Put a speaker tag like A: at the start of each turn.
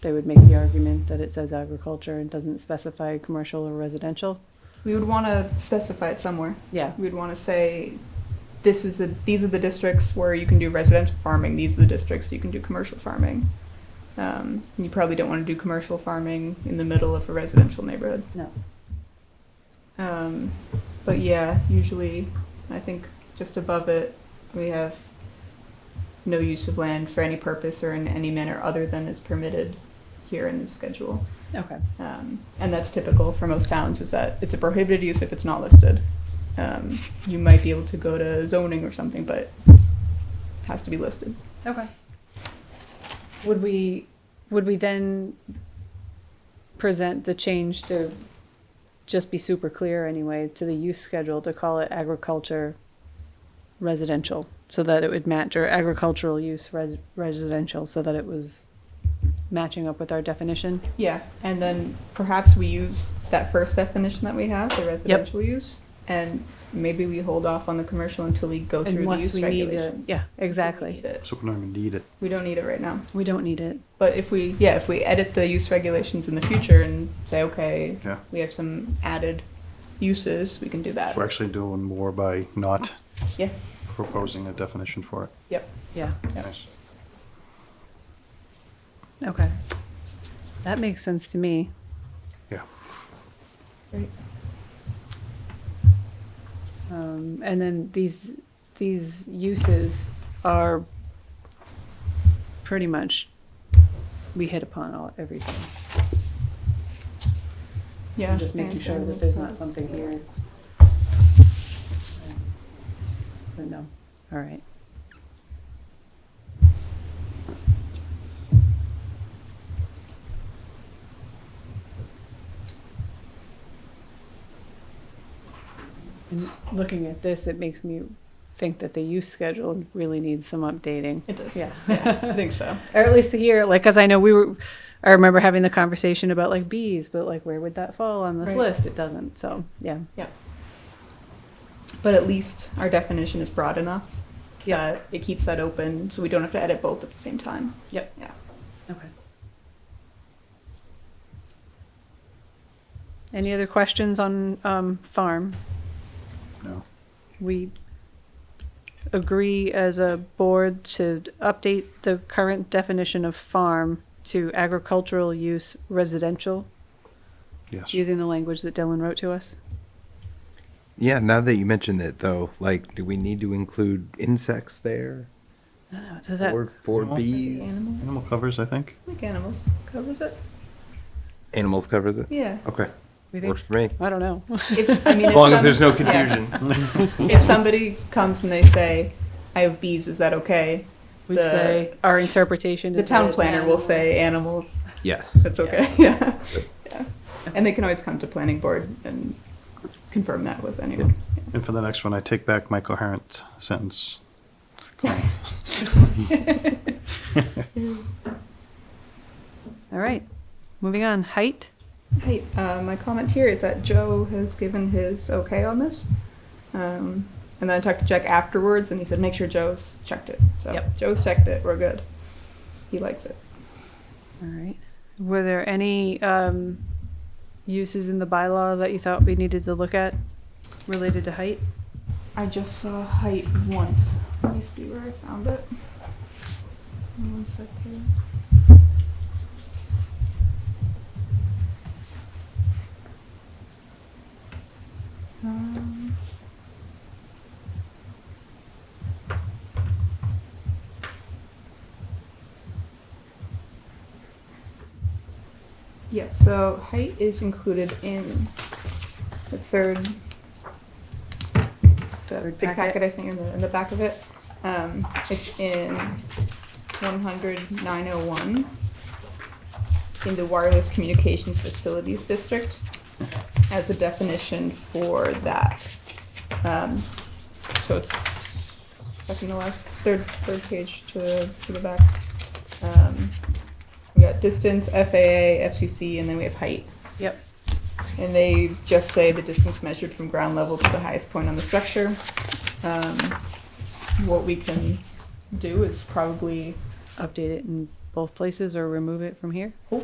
A: they would make the argument that it says agriculture and doesn't specify commercial or residential.
B: We would want to specify it somewhere.
A: Yeah,
B: We'd want to say, this is the these are the districts where you can do residential farming. These are the districts you can do commercial farming. Um, you probably don't want to do commercial farming in the middle of a residential neighborhood.
A: no.
B: Um, but yeah, usually, I think just above it, we have no use of land for any purpose or in any manner other than is permitted here in the schedule.
A: Okay.
B: Um, and that's typical for most towns is that it's a prohibited use if it's not listed. Um, you might be able to go to zoning or something, but it has to be listed.
A: Okay. Would we, would we then present the change to just be super clear anyway, to the use schedule to call it agriculture residential? So that it would match or agricultural use res- residential, so that it was matching up with our definition?
B: Yeah, and then perhaps we use that first definition that we have, the residential use, and maybe we hold off on the commercial until we go through the
A: Unless
B: use
A: we need it,
B: regulations.
A: yeah, exactly.
B: We, need it.
C: So we're not gonna need it.
B: We don't need it right now.
A: We don't need it.
B: But if we, yeah, if we edit the use regulations in the future and say, okay,
C: Yeah.
B: we have some added uses, we can do that.
C: So we're actually doing more by not
B: Uh, Yeah.
C: proposing a definition for it.
B: Yep.
A: Yeah.
B: Yeah.
C: Nice.
A: Okay. That makes sense to me.
C: Yeah.
B: Great.
A: Um, and then these, these uses are pretty much, we hit upon all, everything.
B: Yeah.
A: I'm just making sure that there's not something here. But no, all right. And looking at this, it makes me think that the use schedule really needs some updating.
B: It does.
A: Yeah.
B: yeah. I think so.
A: Or at least here, like, because I know we were, I remember having the conversation about like bees, but like, where would that fall on this
B: Right.
A: list? It doesn't. So, yeah.
B: But at least our definition is broad enough.
A: Yeah.
B: that It keeps that open, so we don't have to edit both at the same time.
A: Yep.
B: Yeah.
A: Okay. Any other questions on um, farm?
C: No.
A: We agree as a board to update the current definition of farm to agricultural use residential,
C: Yes.
A: using the language that Dylan wrote to us.
D: Yeah, now that you mentioned it, though, like, do we need to include insects there?
A: I don't know, Does that?
D: or for
C: Animals?
D: bees?
B: Animals.
C: Animal covers, I think.
B: I think animals covers it.
D: Animals covers it?
B: Yeah.
D: Okay,
A: we think-
D: works for me.
A: I don't know.
B: If, I mean,
D: As
B: if
D: long
B: some-
D: as there's no
B: yeah.
D: confusion.
B: If somebody comes and they say, "I have bees," is that okay?
A: We'd
B: The-
A: say our interpretation
B: The
A: is that
B: town
A: it's
B: planner will
A: animals.
B: say animals.
D: Yes.
B: That's okay. Yeah. yeah. And they can always come to planning board and confirm that with anyone.
C: And for the next one, I take back my coherent sentence.
A: All right, moving on, height?
B: Hey, uh, my comment here is that Joe has given his okay on this. Um, and then I talked to Jack afterwards, and he said, make sure Joe's checked it. So
A: Yep.
B: Joe's checked it. We're good. He likes it.
A: All right. Were there any um, uses in the bylaw that you thought we needed to look at related to height?
B: I just saw height once. Let me see where I found it. One second. Um, Yes, so height is included in the third the
A: Third
B: big
A: packet.
B: packet I sent you in the, in the back of it. Um, it's in one hundred nine oh one in the wireless communications facilities district as a definition for that. Um, so it's second to last, third, third page to, to the back. Um, we got distance, FAA, FCC, and then we have height.
A: Yep.
B: And they just say the distance measured from ground level to the highest point on the structure. Um, What we can do is probably
A: Update it and
B: Oh,
A: both places or remove it from here?